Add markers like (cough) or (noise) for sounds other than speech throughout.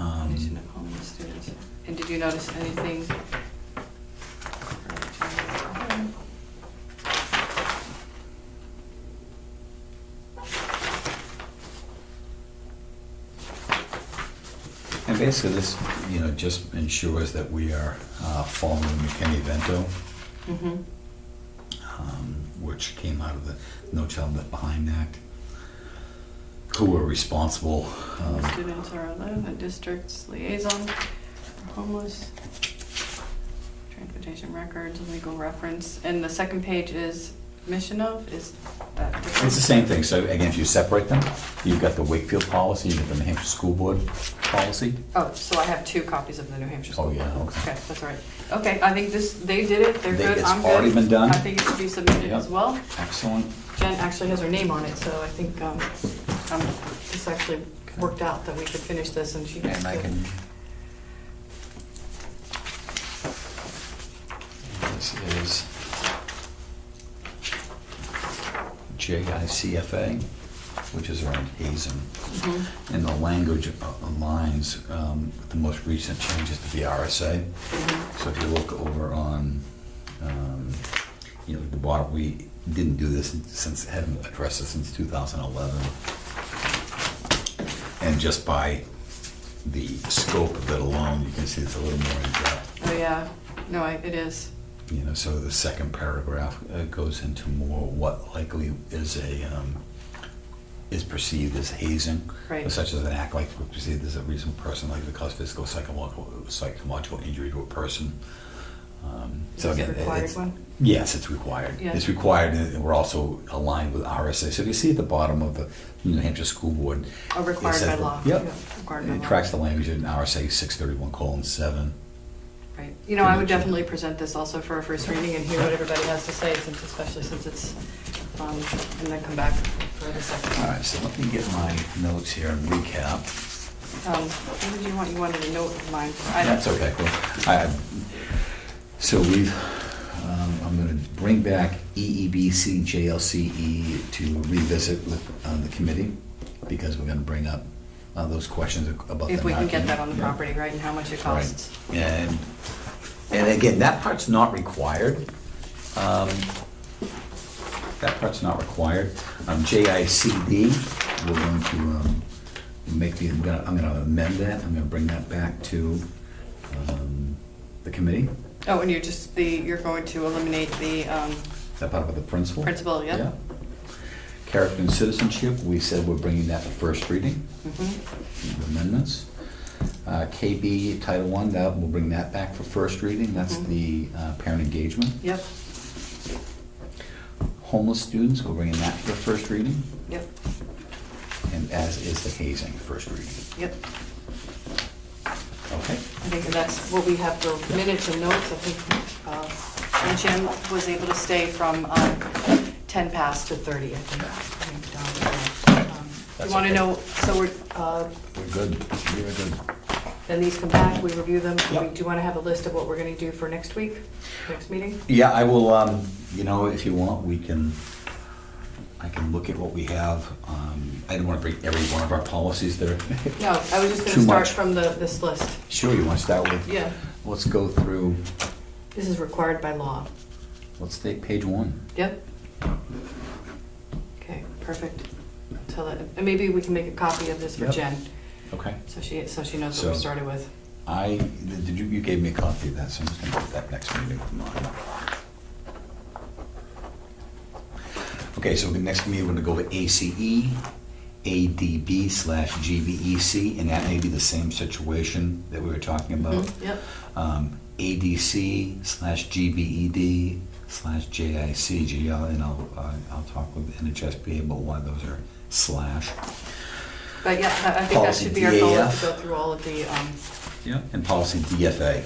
Um, Patient at home with students. And did you notice anything? And basically, this, you know, just ensures that we are uh, following McKinney-Vento, Mm-hmm. um, which came out of the No Child Left Behind Act, who were responsible. um, Students are allowed, the district's liaison, for homeless, transportation records, legal reference, and the second page is mission of, is that different? It's the same thing, so again, if you separate them, you've got the Wakefield policy, you've got the New Hampshire School Board policy. Oh, so I have two copies of the New Hampshire Oh, School. yeah, okay. Okay, that's all right. Okay, I think this, they did it, they're They- good, it's I'm good. already been done? I think it should be submitted as Yep. well. Excellent. Jen actually has her name on it, so I think, um, um, this actually worked out that we could finish this and she. And I can. This is JICFA, which is around hazing. Mhm. And the language aligns um, with the most recent changes to the RSA. Mhm. So if you look over on, um, you know, the bottom, we didn't do this since, hadn't addressed this since 2011. And just by the scope of it alone, you can see it's a little more in depth. Oh, yeah, no, I- it is. You know, so the second paragraph uh, goes into more what likely is a, um, is perceived as hazing. Right. Such as an act like to be perceived as a reasonable person likely to cause physical, psychological, psychological injury to a person. Um, So It's a again, it- required it's, one? yes, it's required. Yeah. It's required, and we're also aligned with RSA. So if you see at the bottom of the New Hampshire School Board. Oh, it required says- by law. Yep. Yeah, required by It law. tracks the language in RSA six thirty-one colon seven. Right. You know, I would Convention. definitely present this also for a first reading and hear what everybody has to say, since, especially since it's, um, and then come back for the second. All right, so let me get my notes here and recap. Um, what did you want? You wanted a note of mine. I- That's okay, cool. I- So we've, um, I'm gonna bring back E EEBC, JLCE E to revisit with uh, the committee, because we're gonna bring up uh, those questions about the. If we can get knocking. that on the Yeah. property, right, and how much it Right. costs. And, and again, that part's not required. Um, That part's not required. Um, JICD, we're going to um, make the, I'm gonna I'm gonna amend that, I'm gonna bring that back to um, the committee, Oh, and you're just the, you're going to eliminate the, um, Is that part of the principal. Principal, yeah. Character and citizenship, we said we're bringing that to first reading, mhm. amendments. Uh, KB Title I, that, we'll bring that back for first reading, that's Mhm. the uh, parent engagement. yep, homeless students, we're bringing that for first reading, yep, and as is the hazing, first reading. yep. Okay? I think that's what we have for minutes and notes. I think, uh, and Jim was able to stay from um, 10 past to 30, I think. I think. Don, uh, um, That's You want to okay. know, so we're, uh, We're good, we're good. then these come back, we review them. Yep. We Do you want to have a list of what we're going to do for next week, next meeting? Yeah, I will, um, you know, if you want, we can, I can look at what we have. Um, I don't want to break every one of our policies there. (laughs) No, I was just going to Too start much. from the, this list. Sure, you want to start with? Yeah. Let's go through, This is required by law. let's take page one. Yep. Okay, perfect. Tell it, and maybe we can make a copy of this for Yep. Jen, Okay. so she, so she knows what we So- started with. I, did you, you gave me a copy of that, so I'm just gonna put that next meeting with mine. Okay, so the next meeting, we're gonna go with ACE, ADB slash GBEC, and that may be the same situation that we were talking about. Mhm, Yep. Um, ADC slash GBED slash JICGL, and I'll, uh, I'll talk with NHSBA about why those are slash. But yeah, I- I think that Policy should be our goal, is DAF. to go through all of the, um, Yep. And policy DFA.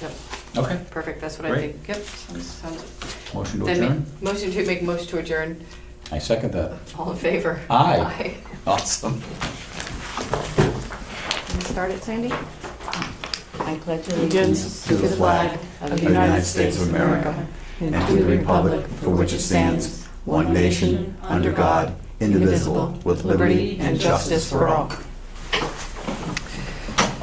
yep, Okay. perfect, that's what I Great. think. Yep, sounds, sounds. Motion to Then ma- adjourn? Motion to make motion to adjourn, I second that. all in favor? Aye. Awesome. Aye. Can we Start it, Sandy? I pledge allegiance allegiance to the flag of the United States of America and to the republic for which it stands, one nation, under God, indivisible, with liberty and justice for all.